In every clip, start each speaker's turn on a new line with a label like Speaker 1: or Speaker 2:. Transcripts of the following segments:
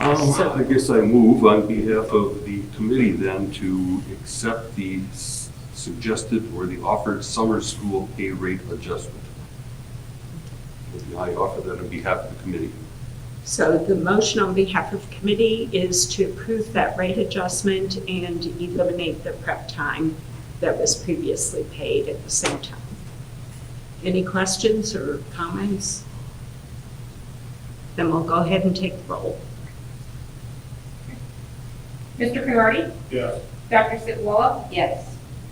Speaker 1: Well, Um, I guess I move on behalf of the committee then to accept the s- suggested or the offered summer school pay rate adjustment. I offer that on behalf of the committee.
Speaker 2: So the motion on behalf of committee is to approve that rate adjustment and eliminate the prep time that was previously paid at the same time. Any questions or comments? Then we'll go ahead and take the roll.
Speaker 3: Mr. Conrady?
Speaker 4: Yes.
Speaker 3: Dr. Sitwalla? Yes.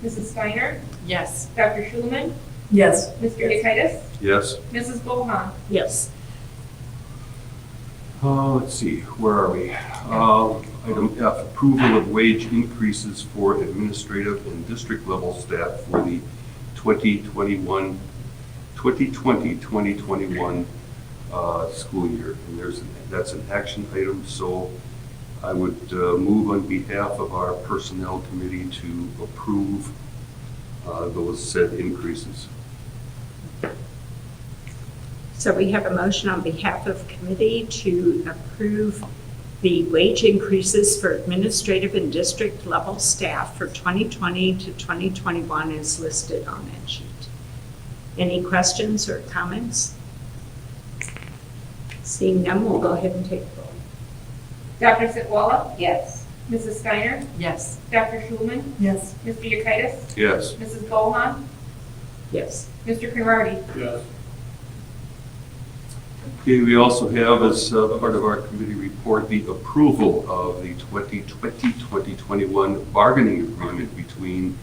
Speaker 3: Mrs. Steiner?
Speaker 2: Yes.
Speaker 3: Dr. Schulman?
Speaker 5: Yes.
Speaker 3: Mr. Yekitis?
Speaker 1: Yes?
Speaker 3: Mrs. Bohan?
Speaker 2: Yes.
Speaker 1: Uh, let's see, where are we? Um, Item F, approval of wage increases for administrative and district level staff for the 2021, 2020, 2021 uh, school year. And there's, that's an action item, so I would uh, move on behalf of our personnel committee to approve uh, those said increases.
Speaker 2: So we have a motion on behalf of committee to approve the wage increases for administrative and district level staff for 2020 to 2021 as listed on that sheet. Any questions or comments? Seeing none, we'll go ahead and take the roll.
Speaker 3: Dr. Sitwalla? Yes. Mrs. Steiner?
Speaker 2: Yes.
Speaker 3: Dr. Schulman?
Speaker 5: Yes.
Speaker 3: Mr. Yekitis?
Speaker 1: Yes.
Speaker 3: Mrs. Bohan?
Speaker 2: Yes.
Speaker 3: Mr. Conrady?
Speaker 4: Yes.
Speaker 1: Okay, we also have as uh, part of our committee report, the approval of the 2020-2021 bargaining agreement between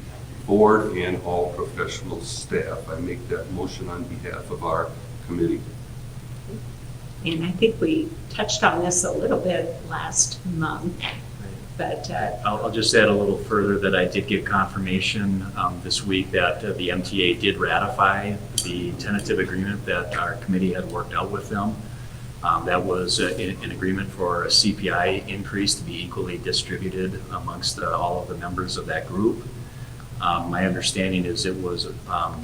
Speaker 1: board and all professional staff. I make that motion on behalf of our committee.
Speaker 2: And I think we touched on this a little bit last month, but uh,
Speaker 6: I'll, I'll just add a little further that I did get confirmation um, this week that uh, the MTA did ratify the tentative agreement that our committee had worked out with them. Um, That was uh, an an agreement for a CPI increase to be equally distributed amongst uh, all of the members of that group. Um, My understanding is it was um,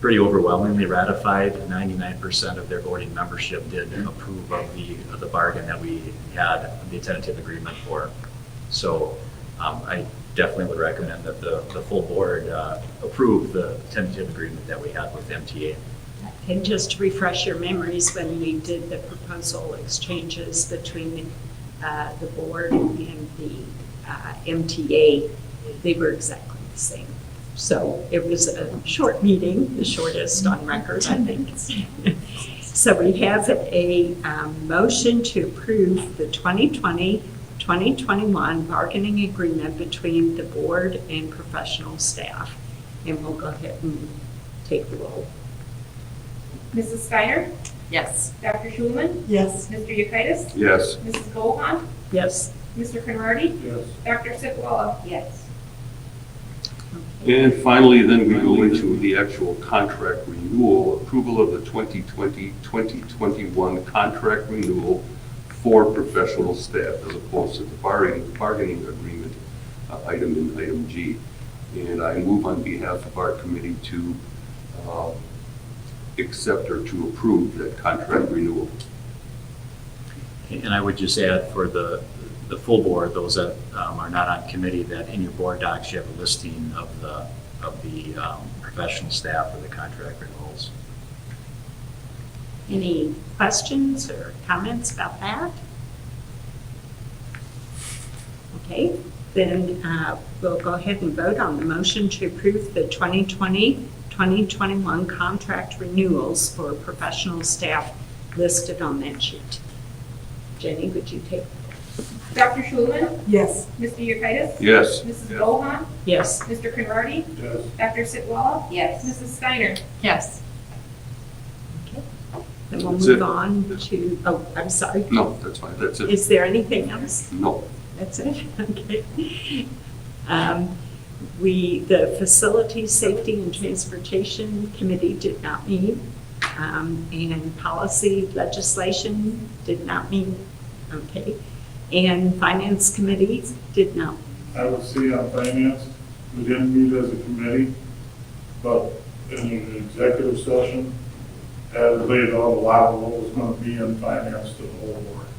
Speaker 6: pretty overwhelmingly ratified. Ninety-nine percent of their voting membership did approve of the, of the bargain that we had, the tentative agreement for. So um, I definitely would recommend that the, the full board uh, approve the tentative agreement that we had with MTA.
Speaker 2: And just to refresh your memories, when we did the proposal exchanges between uh, the board and the uh, MTA, they were exactly the same. So it was a short meeting, the shortest on record, I think. So we have a um, motion to approve the 2020-2021 bargaining agreement between the board and professional staff. And we'll go ahead and take the roll.
Speaker 3: Mrs. Steiner?
Speaker 2: Yes.
Speaker 3: Dr. Schulman?
Speaker 5: Yes.
Speaker 3: Mr. Yekitis?
Speaker 1: Yes.
Speaker 3: Mrs. Bohan?
Speaker 2: Yes.
Speaker 3: Mr. Conrady?
Speaker 4: Yes.
Speaker 3: Dr. Sitwalla? Yes.
Speaker 1: And finally, then we go into the actual contract renewal, approval of the 2020-2021 contract renewal for professional staff as opposed to the bargaining, bargaining agreement uh, item in item G. And I move on behalf of our committee to uh, accept or to approve that contract renewal.
Speaker 6: And I would just add for the, the full board, those that um, are not on committee, that in your board docs, you have a listing of the, of the um, professional staff or the contract renewals.
Speaker 2: Any questions or comments about that? Okay, then uh, we'll go ahead and vote on the motion to approve the 2020-2021 contract renewals for professional staff listed on that sheet. Jenny, would you take?
Speaker 3: Dr. Schulman?
Speaker 5: Yes.
Speaker 3: Mr. Yekitis?
Speaker 1: Yes.
Speaker 3: Mrs. Bohan?
Speaker 2: Yes.
Speaker 3: Mr. Conrady?
Speaker 4: Yes.
Speaker 3: Dr. Sitwalla? Yes. Mrs. Steiner?
Speaker 5: Yes.
Speaker 2: Then we'll
Speaker 1: That's it.
Speaker 2: move on to, oh, I'm sorry.
Speaker 1: No, that's fine, that's it.
Speaker 2: Is there anything else?
Speaker 1: No.
Speaker 2: That's it, okay. Um, We, the Facility, Safety, and Transportation Committee did not meet, um, and Policy Legislation did not meet, okay. And Finance Committee did not,
Speaker 4: I would say on finance, we didn't meet as a committee, but in an executive session, had laid out a lot of what was gonna be in finance to the whole board.